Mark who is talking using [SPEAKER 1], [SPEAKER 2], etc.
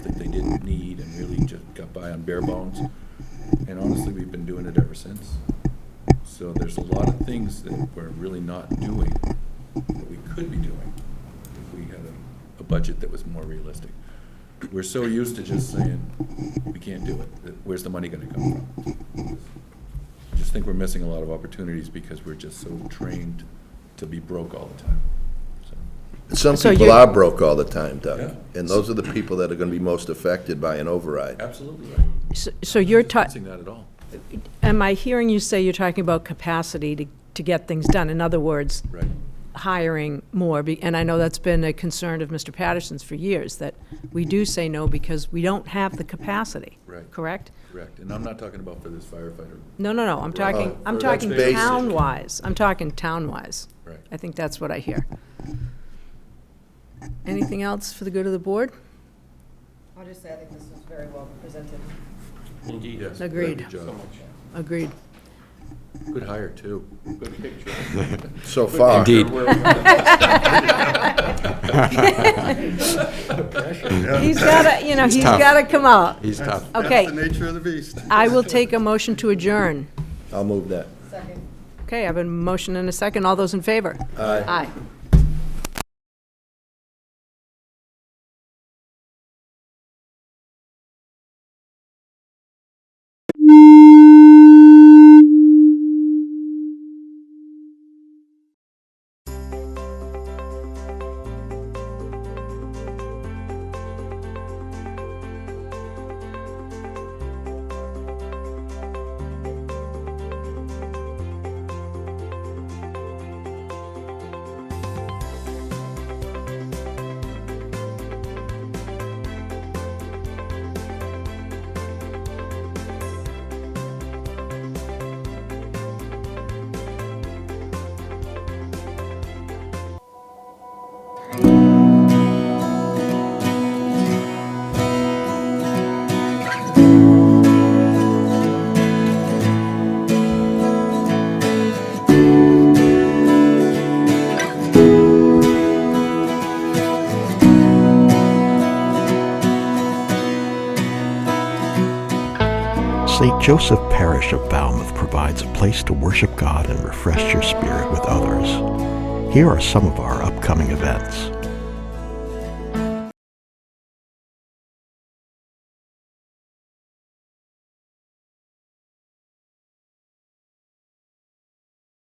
[SPEAKER 1] identify on bare bones. And honestly, we've been doing it ever since. So there's a lot of things that we're really not doing that we could be doing if we had a, a budget that was more realistic. We're so used to just saying, we can't do it. Where's the money gonna come from? I just think we're missing a lot of opportunities because we're just so trained to be broke all the time. So,
[SPEAKER 2] Some
[SPEAKER 3] So
[SPEAKER 2] people
[SPEAKER 3] you-
[SPEAKER 2] are broke all the time, Doug,
[SPEAKER 1] Yeah.
[SPEAKER 2] and those are the people that are gonna be most affected by an override.
[SPEAKER 1] Absolutely right.
[SPEAKER 3] S- So you're
[SPEAKER 1] Missing
[SPEAKER 3] talking,
[SPEAKER 1] that at all.
[SPEAKER 3] am I hearing you say you're talking about capacity to, to get things done? In other words,
[SPEAKER 1] Right.
[SPEAKER 3] hiring more, be- and I know that's been a concern of Mr. Patterson's for years, that we do say no because we don't have the capacity.
[SPEAKER 1] Right.
[SPEAKER 3] Correct?
[SPEAKER 1] Correct. And I'm not talking about for this firefighter.
[SPEAKER 3] No, no, no, I'm talking, I'm
[SPEAKER 1] Uh, that's
[SPEAKER 3] talking
[SPEAKER 1] basic.
[SPEAKER 3] town-wise, I'm talking town-wise.
[SPEAKER 1] Right.
[SPEAKER 3] I think that's what I hear. Anything else for the good of the board?
[SPEAKER 4] I'll just say, I think this was very well presented.
[SPEAKER 5] Indeed.
[SPEAKER 1] Yes,
[SPEAKER 3] Agreed.
[SPEAKER 1] good
[SPEAKER 5] So
[SPEAKER 1] job.
[SPEAKER 5] much.
[SPEAKER 3] Agreed.
[SPEAKER 1] Good hire, too.
[SPEAKER 5] Good picture.
[SPEAKER 2] So far.
[SPEAKER 6] Indeed.
[SPEAKER 3] He's gotta, you know, he's
[SPEAKER 6] tough.
[SPEAKER 3] gotta come out.
[SPEAKER 6] He's tough.
[SPEAKER 3] Okay.
[SPEAKER 7] That's the nature of the beast.
[SPEAKER 3] I will take a motion to adjourn.
[SPEAKER 2] I'll move that.
[SPEAKER 4] Second.
[SPEAKER 3] Okay, I have a motion and a second. All those in favor?
[SPEAKER 2] Aye.
[SPEAKER 3] Aye.
[SPEAKER 8] St. Joseph Parish of Falmouth provides a place to worship God and refresh your spirit with others. Here are some of our upcoming events.